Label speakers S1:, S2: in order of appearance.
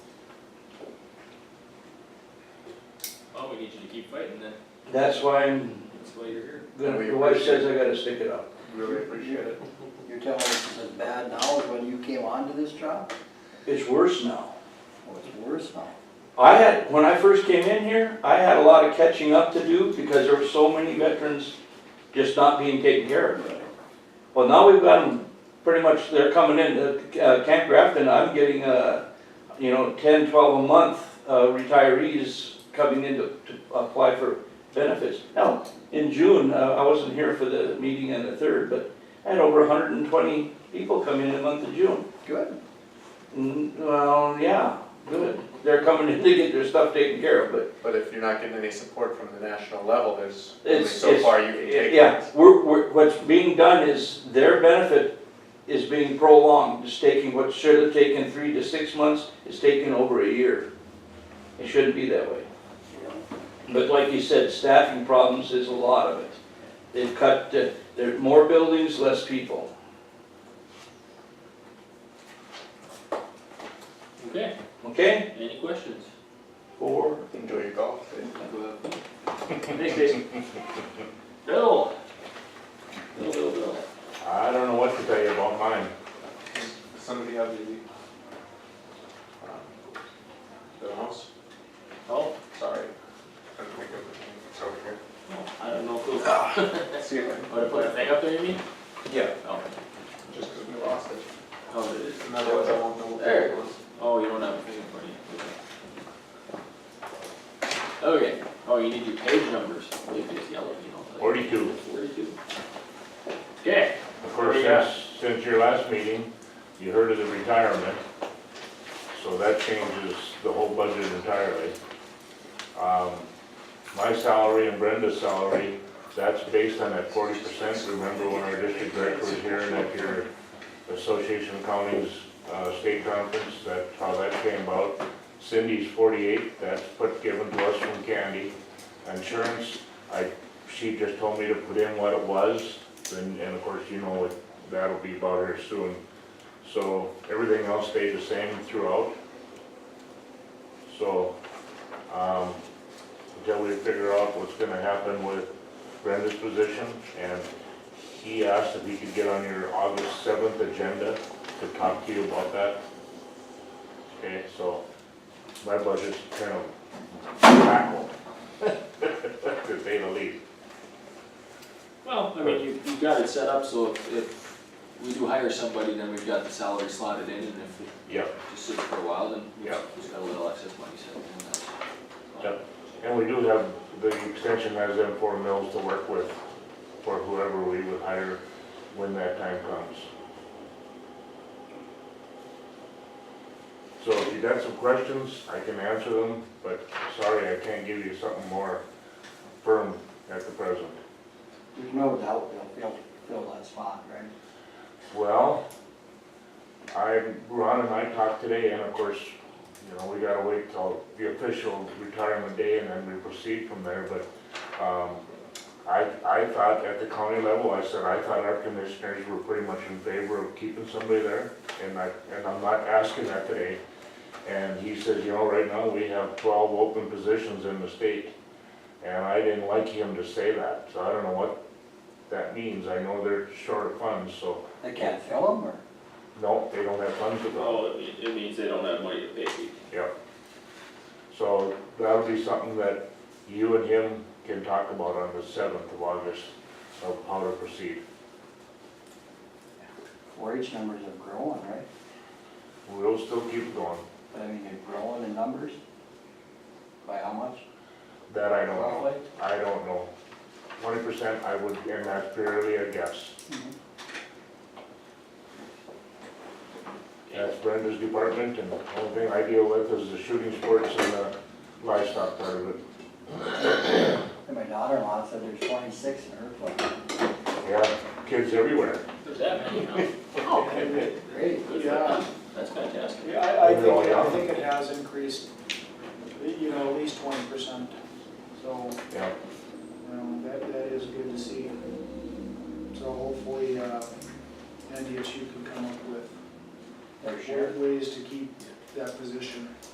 S1: get you to keep fighting then,
S2: That's why I'm,
S1: that's why you're here.
S2: gonna- the wife says I gotta stick it out.
S1: Really appreciate it.
S3: You're telling us it's as bad now as when you came onto this job?
S2: It's worse now.
S3: Well, it's worse now.
S2: I had, when I first came in here, I had a lot of catching up to do because there were so many veterans just not being taken care of. Well, now we've got them, pretty much, they're coming in, uh, Camp Grafton, I'm getting, uh, you know, ten, twelve a month, uh, retirees coming in to, to apply for benefits. Now, in June, uh, I wasn't here for the meeting on the third, but I had over hundred and twenty people come in in the month of June.
S3: Good.
S2: Mm, Well, yeah, good. They're coming in to get their stuff taken care of, but
S4: But if you're not getting any support from the national level, there's only
S2: it's.
S4: so
S2: it's-
S4: far you can take.
S2: Yeah, we're, we're, what's being done is their benefit is being prolonged. It's taking, what should have taken three to six months is taking over a year. It shouldn't be that way. But like you said, staffing problems is a lot of it. They've cut, uh, there are more buildings, less people.
S1: Okay,
S2: Okay?
S1: any questions?
S2: Four.
S4: Enjoy your golf.
S1: Thanks, Jason. Bill. Bill, Bill, Bill.
S5: I don't know what to tell you about mine.
S4: Somebody have the, um, the house?
S1: Oh,
S4: Sorry. I don't think of the name. It's over here.
S1: I don't know who, would
S4: See if I can
S1: I put a thing up there, you mean?
S4: Yeah,
S1: Oh,
S4: just 'cause we lost it.
S1: oh, it is.
S4: And otherwise I won't know what
S1: There.
S4: it was.
S1: Oh, you don't have a thing in front of you. Okay, oh, you need your page numbers, they just yellow, you know. like-
S5: Forty-two.
S1: Forty-two. Okay,
S5: Of
S1: What
S5: course,
S1: do we got?
S5: since, since your last meeting, you heard of the retirement. So that changes the whole budget entirely. Um, My salary and Brenda's salary, that's based on that forty percent. Remember when our district director was here and at your Association of Counties uh, State Conference, that's how that came about. Cindy's forty-eight, that's put, given to us from Candy. Insurance, I, she just told me to put in what it was, and, and of course, you know, what that'll be about here soon. So everything else stayed the same throughout. So, um, until we figure out what's gonna happen with Brenda's position, and he asked if he could get on your August seventh agenda to talk to you about that. Okay, so my budget's kind of wacko, to say the least.
S1: well, I mean, you, you've got it set up, so if, if we do hire somebody, then we've got the salary slotted in, and if it
S5: Yeah,
S1: just sits for a while, then we
S5: Yeah.
S1: just got a little excess money set in, that's.
S5: Yeah. and we do have, the extension has them four mills to work with for whoever we would hire when that time comes. So if you got some questions, I can answer them, but sorry, I can't give you something more firm at the present.
S3: There's no doubt they'll fill, fill that spot, right?
S5: Well, I, Ron and I talked today, and of course, you know, we gotta wait till the official retirement day and then we proceed from there, but, um, I, I thought at the county level, I said, I thought our commissioners were pretty much in favor of keeping somebody there, and I, and I'm not asking that today. And he says, you know, right now, we have twelve open positions in the state, and I didn't like him to say that, so I don't know what that means, I know they're short of funds, so
S3: They can't fill them, or?
S5: no, they don't have funds to go.
S1: Oh, it, it means they don't have money to pay people.
S5: Yep. So that'll be something that you and him can talk about on the seventh of August of how to proceed.
S3: Four H numbers are growing, right?
S5: We'll still keep going,
S3: I mean, they're growing in numbers? By how much?
S5: that I don't know.
S3: Roughly?
S5: I don't know. Twenty percent, I would, and that's purely a guess.
S3: Mm-hmm.
S5: That's Brenda's department, and the only thing I deal with is the shooting sports and the livestock part of it.
S3: And my daughter-in-law said there's twenty-six in her place.
S5: Yeah, kids everywhere.
S1: There's that many, huh? Good
S3: Great.
S1: for them. That's fantastic.
S6: Yeah, I, I
S5: Overall,
S6: think,
S5: yeah.
S6: I think it has increased, you know, at least twenty percent. So,
S5: Yeah,
S6: you know, that, that is good to see. So hopefully, uh, NDSU can come up with
S3: Their share.
S6: ways to keep that position.